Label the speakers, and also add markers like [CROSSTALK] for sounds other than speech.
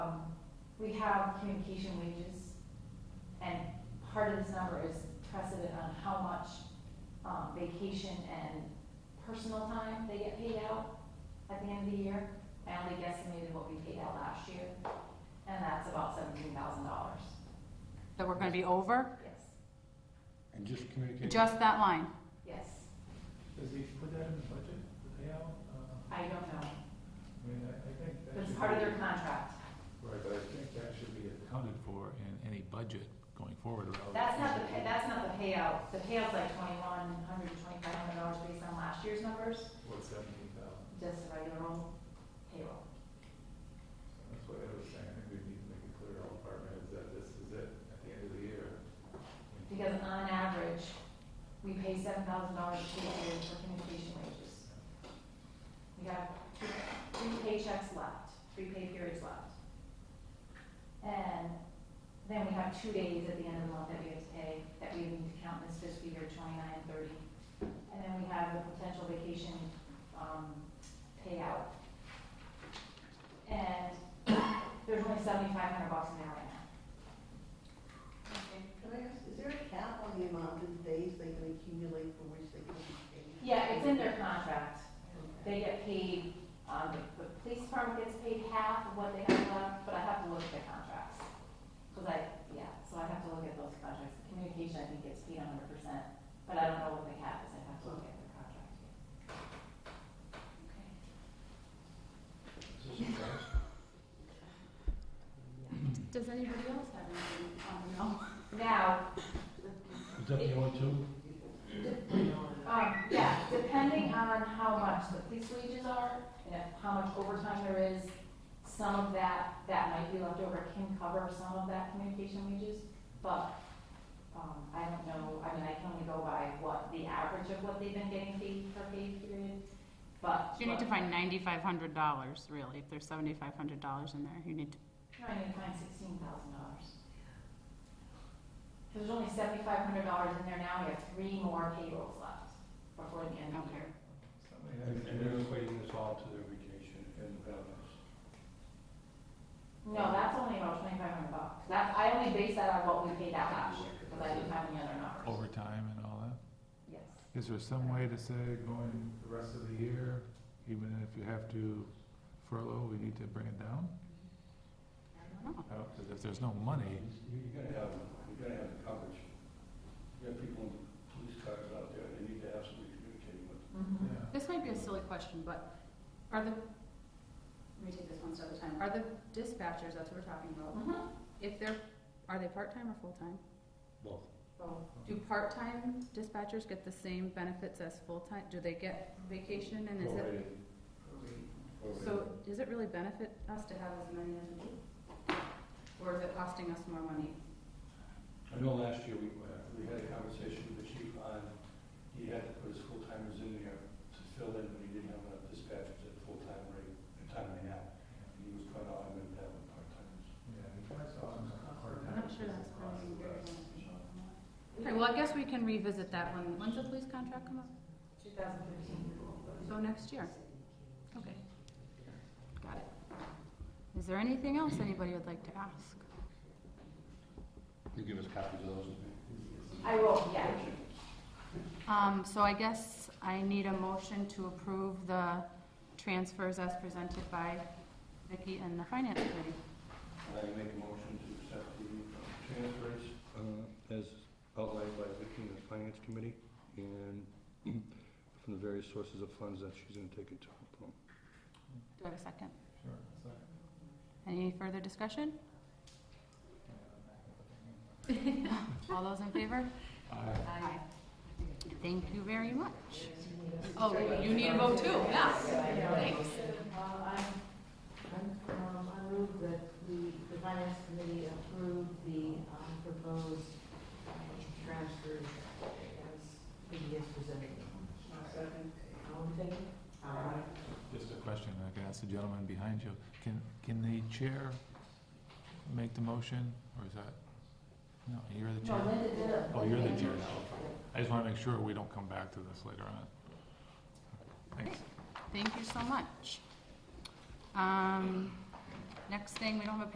Speaker 1: Um, we have communication wages, and part of this number is precedent on how much um, vacation and personal time they get paid out at the end of the year. I only guesstimated what we paid out last year, and that's about seventeen thousand dollars.
Speaker 2: that we're gonna be over,
Speaker 1: Yes,
Speaker 3: And just communicate.
Speaker 2: just that line.
Speaker 1: yes,
Speaker 4: Does he put that in the budget, the payout? Uh,
Speaker 1: I don't know,
Speaker 4: I mean, I, I think that
Speaker 1: but it's
Speaker 4: should
Speaker 1: part of their
Speaker 4: be-
Speaker 1: contract.
Speaker 4: Right, but I think that should be accounted for in any budget going forward or else.
Speaker 1: That's not the, pay- that's not the payout, the payout's like twenty-one hundred, twenty-five hundred dollars based on last year's numbers,
Speaker 4: What, seventeen thousand?
Speaker 1: just the regular old payroll.
Speaker 4: That's what I was saying, I think we need to make it clear to all departments that this is it at the end of the year.
Speaker 1: Because on average, we pay seven thousand dollars a year for communication wages. We have two- three paychecks left, three pay periods left. And then we have two days at the end of the month that we have to pay, that we need to count this fiscal year twenty-nine and thirty. And then we have the potential vacation, um, payout. And there's only seventy-five hundred bucks in there right now.
Speaker 5: Can I ask, is there a cap on the amount of days they can accumulate for which they can be paid?
Speaker 1: Yeah, it's in their contract.
Speaker 5: Okay.
Speaker 1: They get paid, um, the, the police department gets paid half of what they have left, but I have to look at the contracts. Cause I, yeah, so I have to look at those contracts. The Communication, I think, gets paid a hundred percent, but I don't know what they have, is I have to look at the contract.
Speaker 2: Does anybody else have anything on the no?
Speaker 1: Now,
Speaker 3: Is that the only two?
Speaker 1: um, yeah, depending on how much the police wages are, and if- how much overtime there is, some of that, that might be left over, can cover some of that communication wages, but, um, I don't know, I mean, I can only go by what, the average of what they've been getting paid per pay period, but.
Speaker 2: You need to find ninety-five hundred dollars, really, if there's seventy-five hundred dollars in there, you need to,
Speaker 1: No, I need to find sixteen thousand dollars. There's only seventy-five hundred dollars in there now, we have three more payrolls left before the end of the year.
Speaker 4: Somebody has
Speaker 3: And
Speaker 4: to
Speaker 3: and
Speaker 4: do
Speaker 3: they're
Speaker 4: it.
Speaker 3: equating this all to their vacation and the benefits.
Speaker 1: No, that's only about twenty-five hundred bucks. That's, I only base that on what we paid out last year, because I didn't have any other
Speaker 4: Oh,
Speaker 1: numbers.
Speaker 4: Overtime and all that?
Speaker 1: Yes.
Speaker 4: Is there some way to say going the rest of the year, even if you have to furlough, we need to bring it down?
Speaker 2: I don't know.
Speaker 4: I don't- 'cause If there's no money,
Speaker 3: You're gonna have, you're gonna have coverage. You have people in police cars out there, they need to have somebody communicating with.
Speaker 1: Mhm.
Speaker 4: yeah.
Speaker 2: This might be a silly question, but are the, let me take this one step at a time, are the dispatchers, that's what we're talking about,
Speaker 1: Mhm.
Speaker 2: if they're, are they part-time or full-time?
Speaker 3: Both.
Speaker 1: So,
Speaker 2: Do part-time dispatchers get the same benefits as full-time, do they get vacation and is it,
Speaker 3: Prorated. Prorated.
Speaker 2: so does it really benefit us to have as many as we do? Or is it costing us more money?
Speaker 3: I know last year we, uh, we had a conversation with the chief on, he had to put his full-timers in there to fill in when he didn't have enough dispatchers at full-time rate, at time and a half. And he was quite adamant that with part-timers.
Speaker 4: Yeah, that's all I'm-
Speaker 2: I'm not sure that's really very beneficial.
Speaker 1: we-
Speaker 2: Okay, well, I guess we can revisit that one, when's the police contract come up?
Speaker 1: 2015.
Speaker 2: So next year? Okay. Got it. Is there anything else anybody would like to ask?
Speaker 3: You give us copies of those?
Speaker 1: I will, yeah.
Speaker 2: Um, so I guess I need a motion to approve the transfers as presented by Vicki and the finance committee.
Speaker 3: I make a motion to accept the transfers uh, as outlined by Vicki and the Finance Committee and [CLEARS THROAT] from the various sources of funds that she's gonna take it to.
Speaker 2: Do I have a second?
Speaker 4: Sure, it's like-
Speaker 2: Any further discussion? All those in favor?
Speaker 4: Aye.
Speaker 1: I-
Speaker 2: Thank you very much. Oh, you need a vote too, yeah, thanks.
Speaker 5: Uh, I, um, I move that the, the finance committee approve the, um, proposed um, transfers as being presented. Second. All in favor? Aye.
Speaker 4: Just a question, I can ask the gentleman behind you. Can, can the chair make the motion, or is that? No, you're the
Speaker 1: No,
Speaker 4: chair.
Speaker 1: Linda did it.
Speaker 4: Oh, you're the chair now. I just want to make sure we don't come back to this later on. Thanks.
Speaker 2: Thank you so much. Um, next thing, we don't have a